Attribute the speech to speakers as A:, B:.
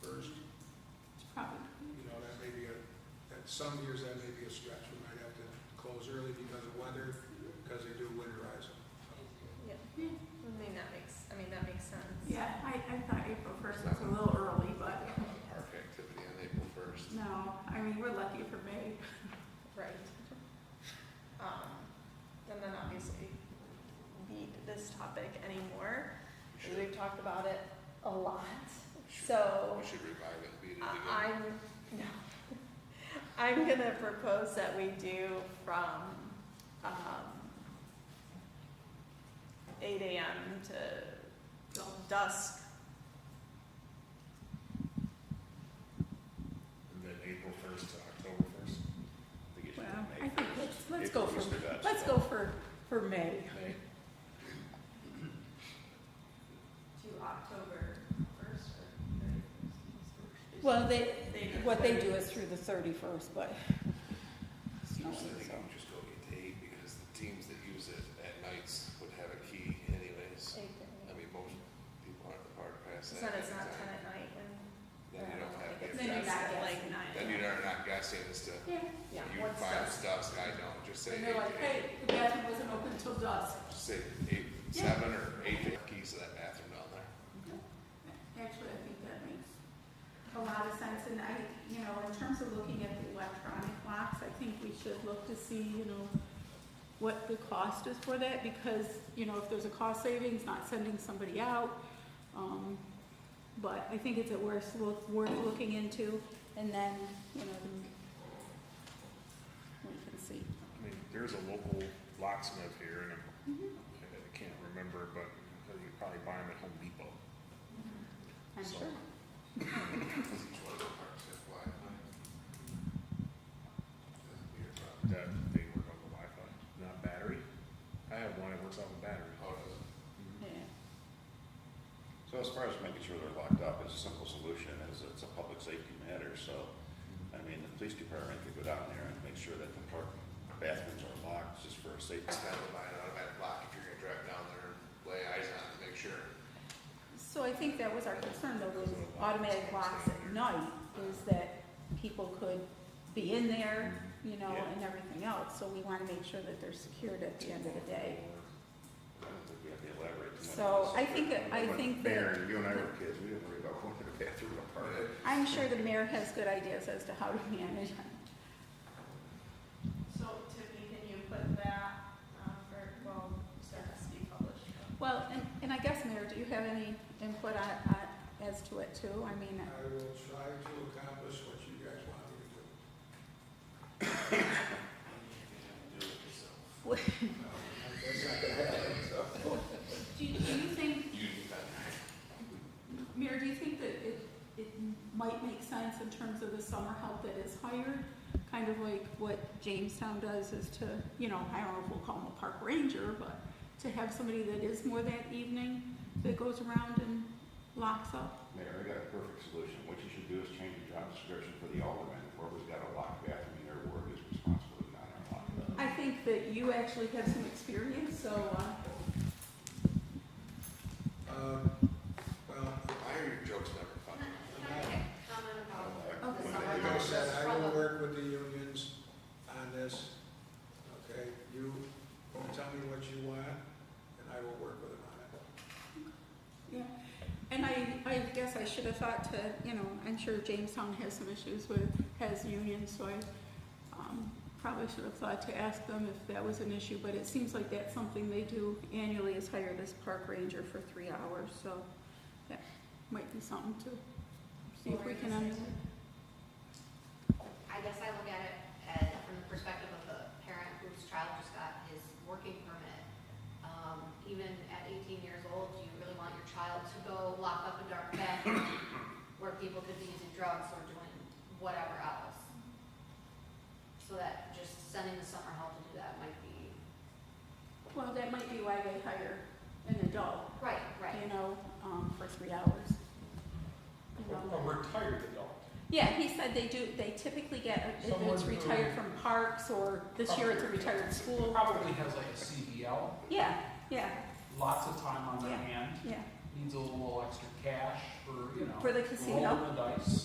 A: Some years that may be a stretch, we might have to close early because of weather, because they do winterize them.
B: Yeah, I mean, that makes, I mean, that makes sense.
C: Yeah, I, I thought April first was a little early, but
D: Park activity on April first.
C: no, I mean, we're lucky for May.
B: Right. Um, and then obviously beat this topic anymore, because we've talked about it a lot. So
D: We should revive it, and beat it
B: I-
D: again.
B: I'm, no, I'm gonna propose that we do from, um, eight AM to dusk.
E: And then April first to October first.
D: I think it should
C: Well,
D: be May
C: I think,
D: 1st.
C: let's, let's go for,
D: April first or dusk.
C: let's go for, for May.
E: May,
B: To October first or thirty-first?
C: Well, they, what they do is through the thirty-first, but. it's not
D: Usually they
C: so.
D: can just go get to eight because the teams that use it at nights would have a key anyways. I mean, most people aren't the park past
B: So
D: that.
B: then it's not ten at
D: anytime.
B: night and.
D: Then you don't have.
B: Then
D: to
B: you're
D: guess.
B: not
C: guessing.
B: like nine.
D: Then you're not guessing as to,
C: Yeah.
B: Yeah,
D: you
B: what's
D: find
B: dusk?
D: stuff, I don't, just say
C: And
D: eight
C: they're like,
D: to
C: hey,
D: eight.
C: the bathroom wasn't open till dusk.
D: Just Say eight,
C: Yeah.
D: seven or eight keys to that bathroom down there.
C: Actually, I think that makes a lot of sense, and I, you know, in terms of looking at the electronic locks, I think we should look to see, you know, what the cost is for that, because, you know, if there's a cost savings, not sending somebody out, um, but I think it's a worth, look- worth looking into, and then, you know, then we can see.
E: I mean, there's a local locksmith here and I'm- I can't remember, but you could probably buy them at Home Depot.
C: I'm
E: So-
C: sure.
D: Because each one of the parks has Wi-Fi. That's a weird problem.
E: That they work on the Wi-Fi, not battery. I have one that works off a battery.
D: How does it?
C: Yeah.
F: Oh, So as far as making sure they're locked up, it's a simple solution, is it's a public safety matter, so, I mean, the police department could go down there and make sure that the park bathrooms are locked, just for a safety.
D: It's kind of an automatic lock if you're gonna drive down there and lay eyes on it, make sure.
C: So I think that was our concern, though, those automatic locks at night, is that people could be in there, you know, and everything else, so we wanna make sure that they're secured at the end of the day.
F: I don't think we have to elaborate too much.
C: So I think, I think that,
F: Mayor, you and I were kids, we didn't worry about going to the bathroom in a park.
C: I'm sure the mayor has good ideas as to how to manage it.
B: So Tiffany, can you put that, um, for, well, that has to be published.
C: Well, and, and I guess, Mayor, do you have any input on, on, as to it too? I mean,
A: I will try to accomplish what you guys want me to do. No, That's not gonna happen, so.
C: do you, do you think
D: You do that.
C: Mayor, do you think that it, it might make sense in terms of the summer help that is hired? Kind of like what Jamestown does is to, you know, I don't know if we'll call them a park ranger, but to have somebody that is more that evening that goes around and locks up.
F: Mayor, I got a perfect solution, what you should do is change the job description for the alderman, whoever's got a locked bathroom in their ward is responsible to not unlock it.
C: I think that you actually have some experience, so, uh,
A: Um, well,
D: Why are your jokes never funny?
C: Okay.
A: Like I said, I will work with the unions on this, okay? You tell me what you want, and I will work with them on it.
C: yeah. And I, I guess I should have thought to, you know, I'm sure Jamestown has some issues with, has unions, so I um, probably should have thought to ask them if that was an issue, but it seems like that's something they do annually is hire this park ranger for three hours, so that might be something to see if we can. under-
G: I guess I look at it as, from the perspective of a parent whose child just got his working permit. Um, even at eighteen years old, do you really want your child to go lock up a dark bathroom where people could be using drugs or doing whatever else? So that just sending the summer help to do that might be,
C: Well, that might be why they hire an adult,
G: right, right.
C: you know, um, for three hours. You know.
H: A retired adult.
C: Yeah, he said they do, they typically get, if
H: Someone
C: it's
H: who-
C: retired from parks or this year it's a retired school.
H: Probably has like a CDL,
C: Yeah, yeah,
H: lots of time on their
C: Yeah.
H: hand,
C: yeah.
H: needs a little extra cash for, you know.
C: For the casino.
H: Rolling the dice.